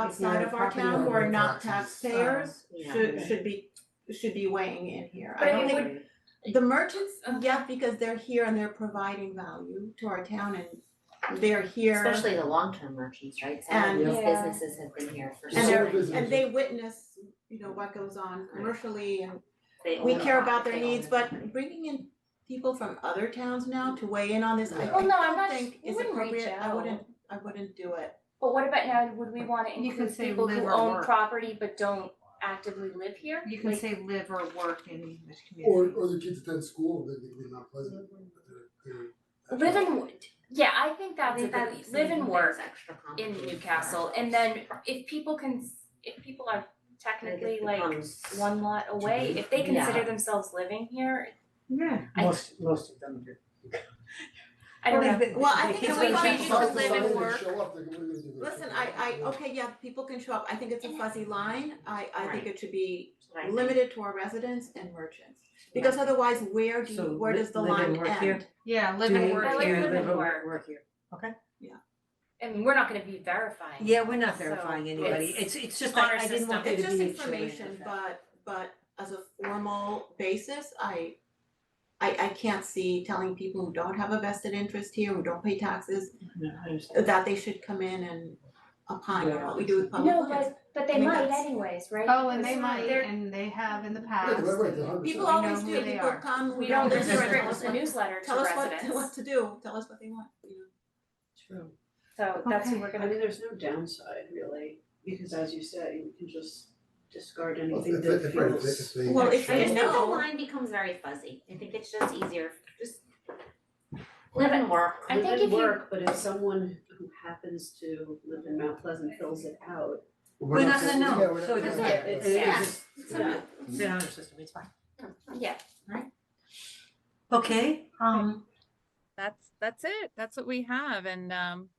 outside of our property town who are owner not taxes. um, taxpayers Yeah. should should be should be weighing in here. I But it don't would- think, the merchants, um, yeah, because they're here and they're providing value to our town and they're here. Especially the long-term merchants, right? Some And- of these Yeah. businesses have been here for so And long. they're, business. and they witness, you know, what goes on commercially and They we own a care lot. about their They own needs, a- but bringing in people from other towns now to weigh in on this, I Yeah. Well, no, I'm don't not, think we is wouldn't reach appropriate, I out, wouldn't, I wouldn't do it. but what about now, would we wanna You can include say people live who or own work. property but don't actively live here? You can Like, say live or work in the Or community. or the kids attend school, they they live not Pleasant, but they're they're. Live and, w- yeah, I think that's, They that, do. live and It's work extra in complicated. Newcastle, and then if people can, if people are technically It like becomes- one lot away, if they Yeah. consider themselves living here, Yeah. I- Most, most of them do. I don't know. Well, I think It's if we like change it to South live and work, Show up, they're gonna- they're gonna- listen, I I, okay, yeah, people can show up, I think it's a fuzzy line, I I think Right. it should be Right. limited to our residents and merchants. Because otherwise, where do, So you- where li- does the live and line work here? end? Yeah, live and Do- I work like do live you here. and work. Work here, okay. I mean, we're not gonna be verifying. Yeah, we're not So, verifying anybody, it's, it's just, honor I, I didn't want there It's to be a just chilling information, effect. but but as a formal basis, I I I can't see telling people who don't have a vested interest here, who don't pay taxes, No, I understand. that they should come in and opine on what we do with public No, lands. but, but they I mean, might that's- anyways, right? Oh, and they Because might, they're- and they have in the Yeah, past. right, right, they're 100%. People We know always who do, they people are. come, We we don't don't There's listen, restrict tell restrict us the what, newsletter to tell us what, what residents, to do, tell us what they want, you know. True. so that's what we're I gonna, mean, there's no downside really, because as you say, you can just discard Well, anything if- that if- right, if- feels. if they- Well, if I they just think the know, line becomes very fuzzy, I think it's just easier, just live and work. I think Live if and you- work, but if someone who happens to live in Mount Pleasant fills it out, We're not gonna yeah, know, we're not so it gonna doesn't know. matter, it it's, it Yeah. just, It's yeah. not- it's an honor system, it's fine. yeah, Okay, um, That's, that's it. That's what we have. And, um,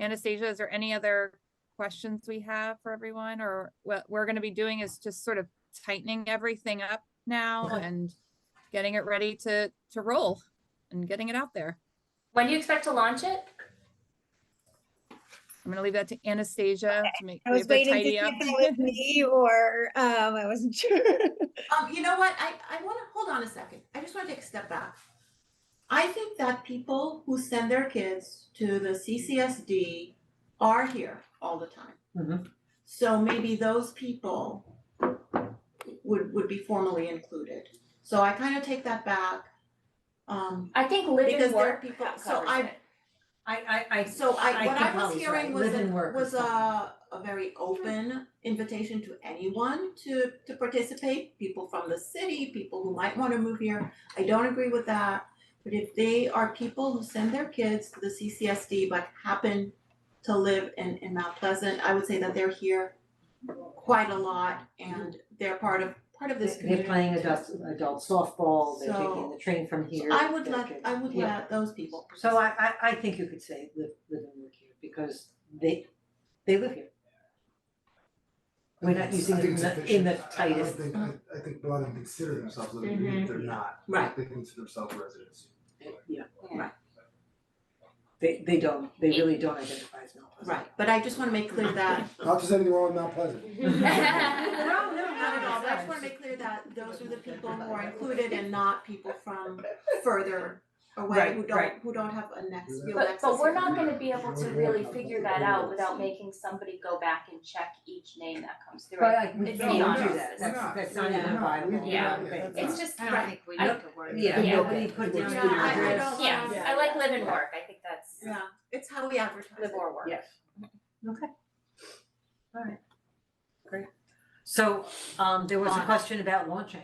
Anastasia, is there any other questions we have for everyone? Or what we're gonna be doing is just sort of tightening everything up now Okay. and getting it ready to, to roll and getting it out there. when do you expect to launch it? I'm gonna leave that to Anastasia to make, I we was have to waiting to see tidy up. if that was me or, um, I wasn't sure. um, you know what, I, I wanna, hold on a second, I just wanna take a step back. I think that people who send their kids to the CCSD are here all the time. Mhm. So maybe those people would, would be formally included, so I kinda take that back. Um, I think live Because and there are work people- co- so covers I- it. I, I, I, So I, what I think was Molly's hearing right. was Live and a, work is was fine. a, a very open invitation to anyone to, to participate, people from the city, people who might wanna move here. I don't agree with that, but if they are people who send their kids to the CCSD but happen to live in, in Mount Pleasant, I would say that they're here quite a lot and they're part of, part of this They- They're community. playing adult, adult softball, they're So- taking the train from here. I would they're let, getting- I would Yeah. let those people. So I, I, I think you could say live, live and work here, because they, they live here. We're not using I it think in it's the, in the efficient. I- tightest. I don't think, I I think a lot of them consider themselves living, here, they're not, Mm-hmm. Right. they consider themselves residents. Yeah. Right. They, they don't, they really don't identify as Mount Pleasant. Right, but I just wanna make clear that Not just anything wrong with Mount Pleasant. No, no, Not at all, but I not just wanna make clear that those are the people who are included and not people from further away Right, who right. don't, who don't have a next, real But access. but we're here. not gonna be able to really figure that out without making somebody go back and check each name that comes through. But like, we It's don't do not us. that, that's, that's not Yeah. even viable. Yeah. Right. It's just, I don't think we need I- to worry. Yeah, Yeah. nobody put down Yeah, an I- I address. don't- yeah, I like live and work, I think that's Yeah, it's how we advertise live it. or work. Yes. Okay. Alright. Great. So, um, there was a Launch. question about launching.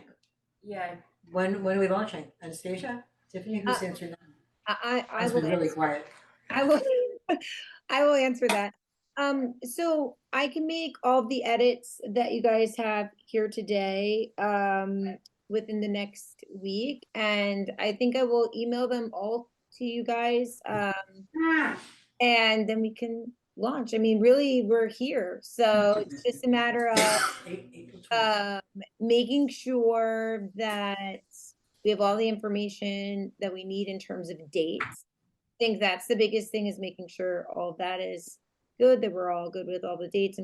Yeah. When, when are we launching? Anastasia? Tiffany, who's Uh, answering that? I, I, I It's been will really quiet. I will, I will answer that. Um, so I can make all the edits that you guys have here today, um, within the next week. And I think I will email them all to you guys, Mm. um, and then we can launch. I mean, really, we're here. So it's just a matter of Eight- April 20th. um, making sure that we have all the information that we need in terms of dates. I think that's the biggest thing is making sure all of that is good, that we're all good with all the dates and